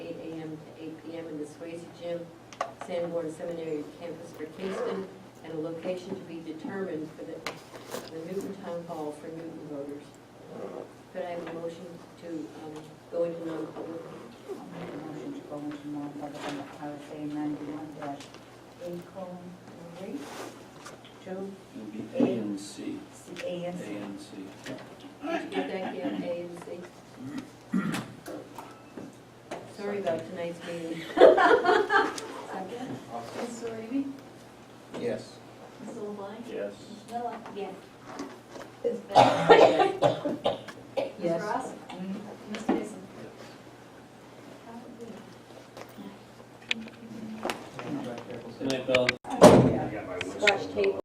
Sanborn Seminary campus for Kingston and a location to be determined for the, the Newton Town Hall for Newton voters. Could I have a motion to, um, go into non-public? I'll make a motion to go into non-public under RSA ninety-one dash eight colon three. Two, It'll be A and C, C A A N C. and C. Did you get that, Kim, A and C? Sorry about tonight's meeting. Second, Awesome. Mr. Raby, Yes. Mr. LeBlanc, Yes. Mr. Miller. Yes. Ms. Bennett. Mm-hmm.